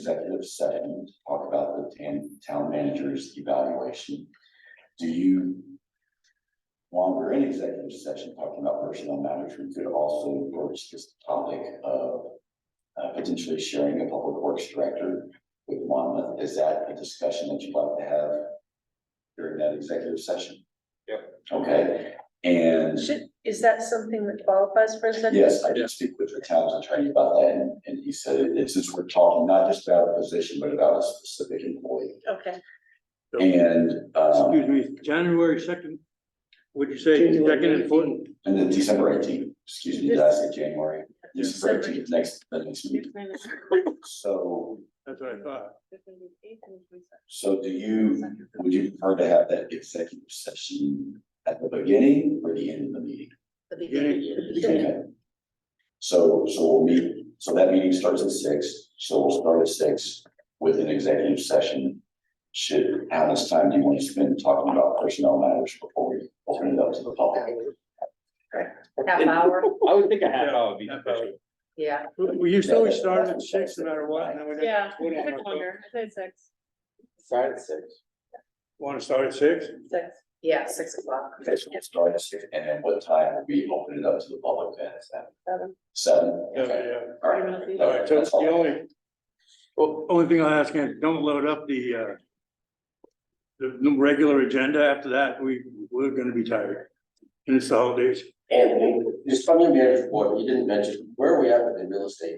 executive session to talk about the tan- town manager's evaluation. Do you? While we're in executive session talking about personnel matters, we could also broach this topic of. Uh, potentially sharing a public works director with Monmouth. Is that a discussion that you'd like to have? During that executive session? Yep. Okay, and. Should, is that something that qualifies for executive? Yes, I did speak with the town's attorney about that, and, and he said, it- since we're talking not just about a position, but about a specific employee. Okay, And, um, Excuse me, January second, would you say second and fourth? and then December eighteenth, excuse me, did I say January? December December. eighteenth, next, the next meeting. So, That's what I thought. so do you, would you prefer to have that executive session at the beginning or the end of the meeting? Okay. So, so we'll meet, so that meeting starts at six, so we'll start at six with an executive session. Should, how much time do you want to spend talking about personnel matters before we open it up to the public? Half hour, I would think a half hour would be. Half hour. yeah. We used to always start at six no matter what, and then we didn't yeah, What I am I took longer, I said six, Start at six. want to start at six. six, Yeah, six o'clock. Okay, so we'll start at six, and then what time will we open it up to the public then? Is that seven. seven? Yeah, Okay. yeah. All I don't know right. if you- All right, so That's all. the only, well, only thing I'll ask is, don't load up the, uh, the the regular agenda after that, we, we're gonna be tired. And it's the holidays. Anthony, just from your manager's board, you didn't mention, where are we at with the real estate?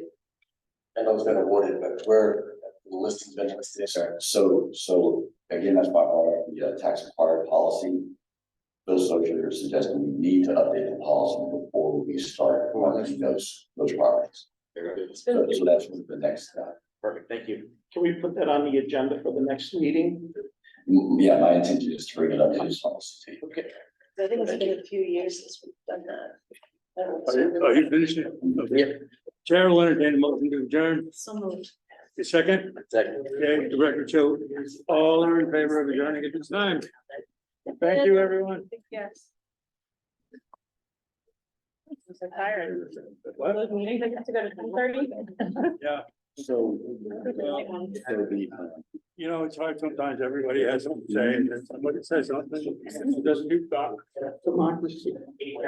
I know it's been awarded, but where, the listing's been listed, Yes, sir. So, so again, that's why I brought up the uh, tax required policy. Bill Socher suggested we need to update the policy before we start running those, those properties. So so that's what the next, uh, Perfect, thank you. Can we put that on the agenda for the next meeting? m- yeah, my intention is to bring it up to this policy. to you. Okay. I think it's been a few years since we've done that. I don't Are you, are you finished? Okay. Chair will entertain a motion to adjourn. So moved. The second, Second. okay, the record show, all are in favor of adjourning at this time. Thank you, everyone. Yes. I'm so tired, What? those meetings, I have to go to ten thirty. Yeah, So. uh, Well, it'll be, uh, you know, it's hard sometimes, everybody has something to say, and then somebody says something, it doesn't do that. Democracy.